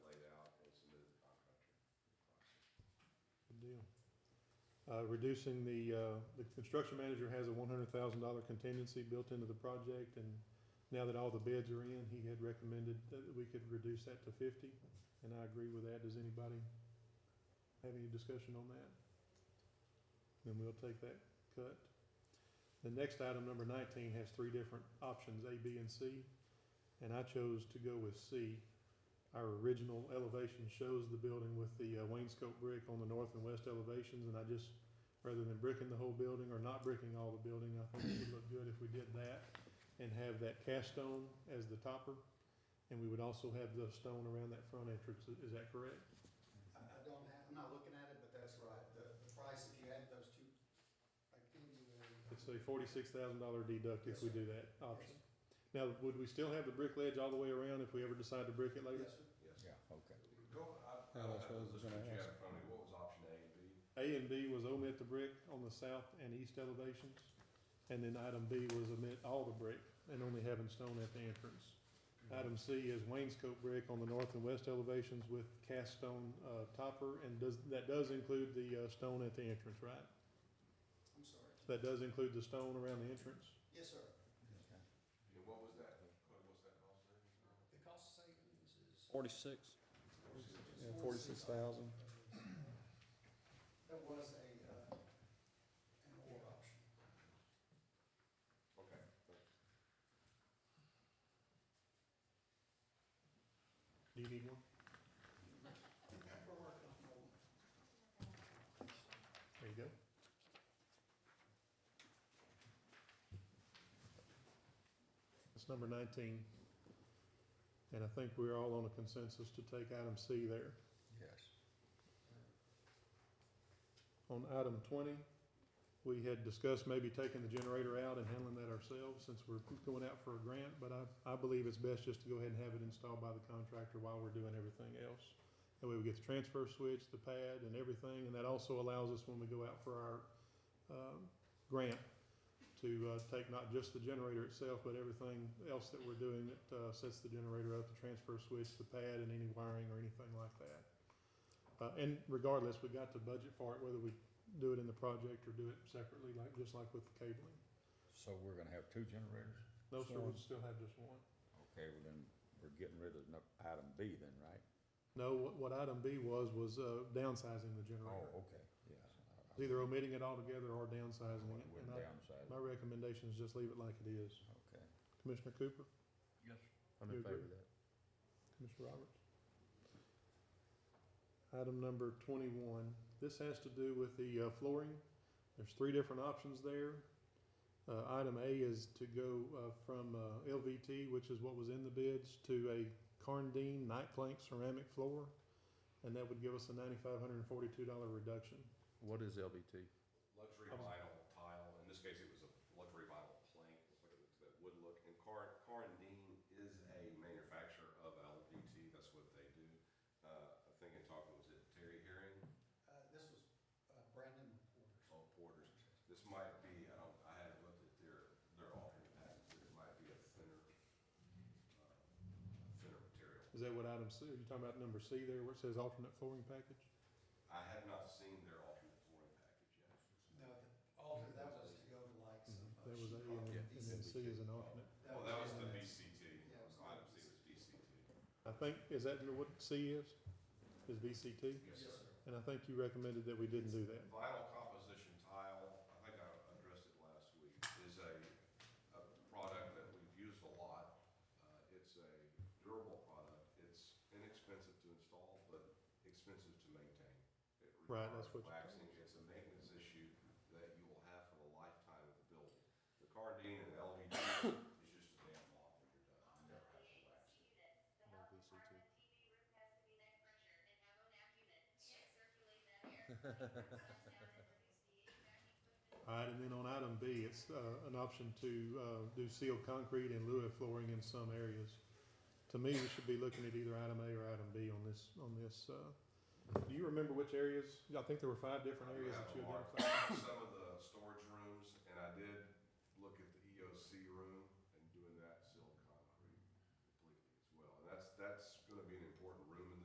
uh, reducing the, uh, the construction manager has a one hundred thousand dollar contingency built into the project, and now that all the bids are in, he had recommended that we could reduce that to fifty, and I agree with that. Does anybody have any discussion on that? Then we'll take that cut. The next item, number nineteen, has three different options, A, B, and C, and I chose to go with C. Our original elevation shows the building with the uh, wainscot brick on the north and west elevations, and I just, rather than bricking the whole building or not bricking all the building, I think it would look good if we did that and have that cast stone as the topper, and we would also have the stone around that front entrance. Is- Is that correct? I, I don't have, I'm not looking at it, but that's right, the, the price, if you add those two, I give you the. It's a forty-six thousand dollar deduct if Yes, we sir. do that option. Now, would we still have the brick ledge all the way around if we ever decide to brick it later? Yes, sir. Yeah, okay. Go, I, Yeah, I that's what I was listen to gonna you ask. in front of me, what was option A and B? A and B was omit the brick on the south and east elevations, and then item B was omit all the brick and only having stone at the entrance. Item C is wainscot brick on the north and west elevations with cast stone, uh, topper, and does, that does include the, uh, stone at the entrance, right? I'm sorry. That does include the stone around the entrance? Yes, sir. And what was that, what was that cost savings? The cost savings is. Forty-six. it's Yeah, forty-six thousand. That was a, uh, an or option. Okay. Do you need one? We're working on more. There you go. That's number nineteen. And I think we're all on a consensus to take item C there. Yes. On item twenty, we had discussed maybe taking the generator out and handling that ourselves since we're going out for a grant, but I, I believe it's best just to go ahead and have it installed by the contractor while we're doing everything else. That way we get the transfer switch, the pad and everything, and that also allows us when we go out for our, um, grant to, uh, take not just the generator itself, but everything else that we're doing that, uh, sets the generator up, the transfer switch, the pad and any wiring or anything like that. Uh, and regardless, we got to budget for it, whether we do it in the project or do it separately, like, just like with the cabling. So we're gonna have two generators? No, sir, Sure. we'd still have just one. Okay, well then, we're getting rid of nu- item B then, right? No, what, what item B was, was, uh, downsizing the generator. Oh, okay, yeah. It's Either omitting it altogether or downsizing it, We're and I, downside, my recommendation is just leave it like it is. okay. Commissioner Cooper, Yes. I'm You in agree? favor of that. Commissioner Roberts. Item number twenty-one, this has to do with the, uh, flooring. There's three different options there. Uh, item A is to go, uh, from, uh, LVT, which is what was in the bids, to a Carndean night plank ceramic floor. And that would give us a ninety-five hundred and forty-two dollar reduction. What is LVT? Luxury I was- vinyl tile, in this case, it was a luxury vinyl plank, like it- that would look, and Car, Car and Dean is a manufacturer of LVT, that's what they do. Uh, I think in talking, was it Terry Herring, Uh, this was, uh, Brandon Porter's. Paul Porter's, this might be, I don't, I haven't looked at their, their alternate package, but it might be a thinner, uh, thinner material. Is that what item C, are you talking about number C there where it says alternate flooring package? I have not seen their alternate flooring package yet. No, the alter, that was to go to like some. uh, Mm-hmm. That was A sheetrock. and then- and then C is an alternate. Well, Oh, that was the in VCT, Yeah, it was item the C was VCT. I think, is that what C is? Is VCT? Yes, sir. And I think you recommended that we didn't do that. Vinyl composition tile, I think I addressed it last week, is a, a product that we've used a lot. Uh, It's a durable product, it's inexpensive to install, but expensive to maintain. It Right, that's requires what- Waxing, it's a maintenance issue that you will have for the lifetime of the building. The Cardine and LED is just a damn law when you're done, you never have to wax. All right, and then on item B, it's uh, an option to uh, do sealed concrete in lieu of flooring in some areas. To me, we should be looking at either item A or item B on this, on this. uh, Do you remember which areas? I think there were five different areas that you identified. Some of the storage rooms, and I did look at E the EOC room and doing that sealed concrete completely as well. And that's, that's